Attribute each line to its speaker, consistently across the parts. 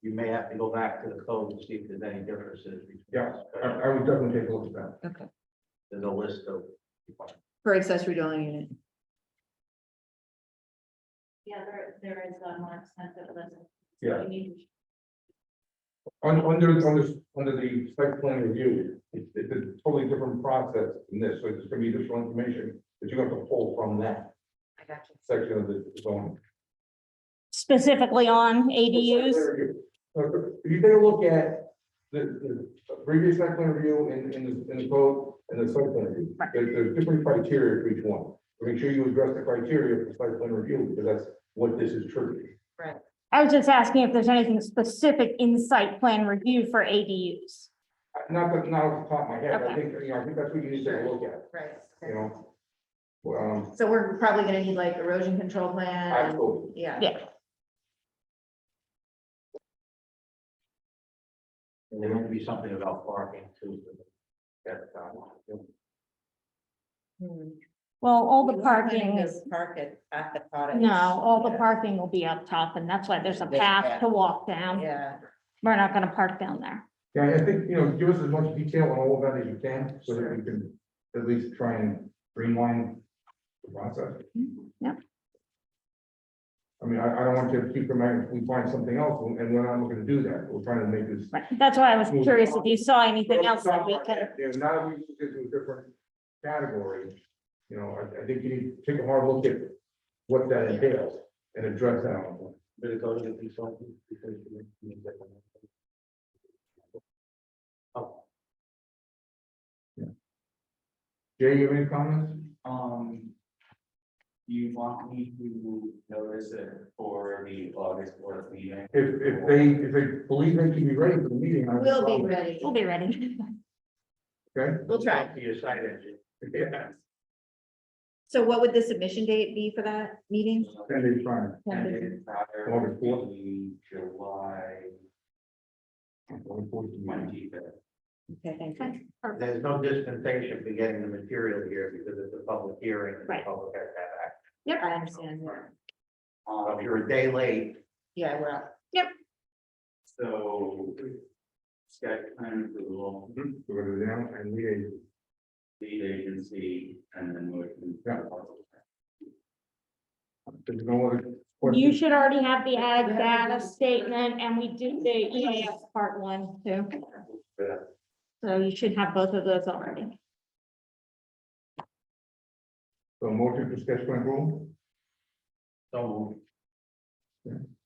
Speaker 1: you may have to go back to the code and see if there's any differences. between
Speaker 2: Yeah. I,
Speaker 1: uh,
Speaker 2: I would definitely take a look at that.
Speaker 3: Okay,
Speaker 1: There's a list of.
Speaker 3: for accessory dwelling unit.
Speaker 4: Yeah, there, there is a more extensive list.
Speaker 2: Yeah.
Speaker 4: You need-
Speaker 2: Un- Under, under, under the site plan review, it's, it's a totally different process than this, so it's gonna be additional information that you have to pull from that
Speaker 3: I got you.
Speaker 2: section of the zone.
Speaker 5: specifically on ADUs.
Speaker 2: So Uh, If you take a look at the, the previous site plan review in, in the, in the code and the site plan review,
Speaker 5: Right.
Speaker 2: there, there's different criteria for each one. So Make sure you address the criteria for site plan review, because that's what this is triggering.
Speaker 5: I was just asking if there's anything specific in site plan review for ADUs.
Speaker 2: Uh, Not, that- not off the top of my head, I
Speaker 5: Okay.
Speaker 2: think, you know, I think that's what you need to take a look at,
Speaker 3: Right.
Speaker 2: you know? Well, Um,
Speaker 3: So we're probably gonna need like erosion control plan,
Speaker 2: Absolutely.
Speaker 3: yeah.
Speaker 1: There might be something about parking too. That's, um,
Speaker 3: Hmm.
Speaker 5: Well, all the parking is,
Speaker 6: Park at, at the cottage.
Speaker 5: no, all the
Speaker 6: Yeah.
Speaker 5: parking will be up top and that's why there's a
Speaker 6: There's a
Speaker 5: path
Speaker 6: path.
Speaker 5: to walk down.
Speaker 6: Yeah,
Speaker 5: We're not gonna park down there.
Speaker 2: Yeah, I think, you know, give us as much detail on all of that as you can, so that we can at least try and streamline the process.
Speaker 5: Mm-hmm, Yep.
Speaker 2: I mean, I, I don't want to keep from, if we find something else, and we're not looking to do that, we're trying to make this.
Speaker 5: Right. That's why I was curious if you saw anything else that we could.
Speaker 2: Yeah, now that we put this in a different category, you know, I, I think you need to take a hard look at what that entails and address that. on
Speaker 1: Did it go to the consultant? Because you- you get them. Oh,
Speaker 2: Jay, you have any comments?
Speaker 7: Um. You want me to notice it for the August fourth meeting?
Speaker 2: If, if they, if they believe they can be ready for the meeting. I would
Speaker 3: We'll be
Speaker 2: probably-
Speaker 3: ready,
Speaker 5: We'll be ready.
Speaker 2: Okay.
Speaker 3: we'll try.
Speaker 1: talk To your site engineer.
Speaker 2: Yeah.
Speaker 3: So what would the submission date be for that meeting?
Speaker 2: Ten days prior.
Speaker 7: And it's prior
Speaker 2: August fourth.
Speaker 7: to the July twenty fifth.
Speaker 3: Okay, thank you.
Speaker 1: There's no dispensation for getting the material here because it's a public hearing. and
Speaker 5: Right.
Speaker 1: The public has to have access.
Speaker 3: Yep, I understand, yeah.
Speaker 1: So If you're a day late,
Speaker 3: yeah, we're out.
Speaker 7: so. Sketch plan approval,
Speaker 2: So we're gonna go down and we,
Speaker 7: lead agency, and then motion.
Speaker 2: Yeah. uh, there's no other.
Speaker 5: You
Speaker 2: questions?
Speaker 5: should already have the ag data statement and we do the EAF part one too. So you should have both of those already.
Speaker 2: So motion to sketch plan rule,
Speaker 1: so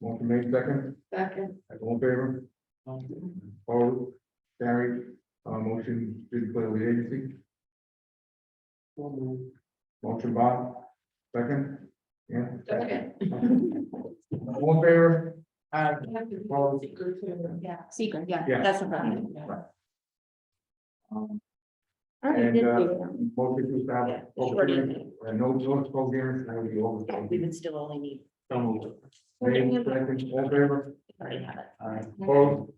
Speaker 2: motion made second,
Speaker 6: second,
Speaker 2: all in favor, opposed, carried, uh, motion to declare lead agency. Motion Bob, second, yeah.
Speaker 6: Second.
Speaker 2: All in favor, opposed,
Speaker 4: Yeah.
Speaker 3: Secret, yeah, Um,
Speaker 2: Yeah.
Speaker 3: that's the problem.
Speaker 5: I already
Speaker 2: And,
Speaker 5: did
Speaker 2: uh,
Speaker 5: do
Speaker 3: um,
Speaker 5: them.
Speaker 2: motion to establish.
Speaker 3: Yeah,
Speaker 2: open
Speaker 3: short
Speaker 2: hearing, uh, No, no, it's called hearing, and I would be over.
Speaker 3: We would still only need,
Speaker 2: Made second, all in favor,
Speaker 3: already have it.
Speaker 2: Opposed?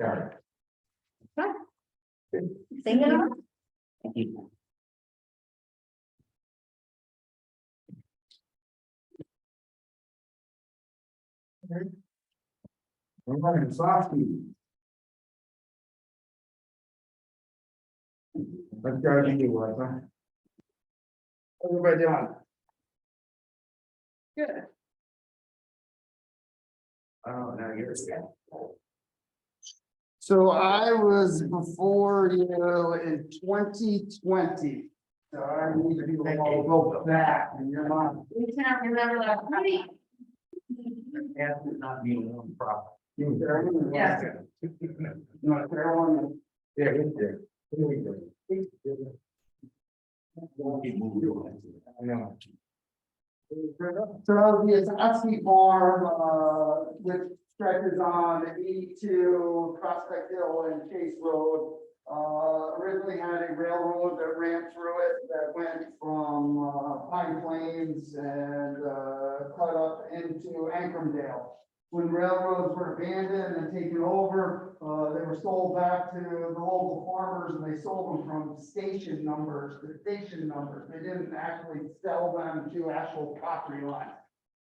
Speaker 2: Carried.
Speaker 3: Thank you.
Speaker 2: All right, Sofsky. That's gotta be you, right, huh? How's Everybody doing?
Speaker 1: oh, now you're.
Speaker 8: So I was before you in twenty twenty. So I need to be able to go back and you're not,
Speaker 4: We cannot remember that. Honey,
Speaker 1: Ask is not being on property.
Speaker 8: you there.
Speaker 4: Yes.
Speaker 8: Not there one.
Speaker 2: Yeah, it's there. Here we go. I know.
Speaker 8: So it's actually farm, uh, which stretches on eighty-two Prospect Hill and Case Road. Uh, originally had a railroad that ran through it that went from uh, Pine Plains and, uh, cut up into Ancrumdale. When railroads were abandoned and taken over, uh, they were sold back to the local farmers and they sold them from station numbers to station numbers. They didn't actually sell them to actual property lines.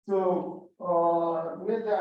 Speaker 8: So, uh, with that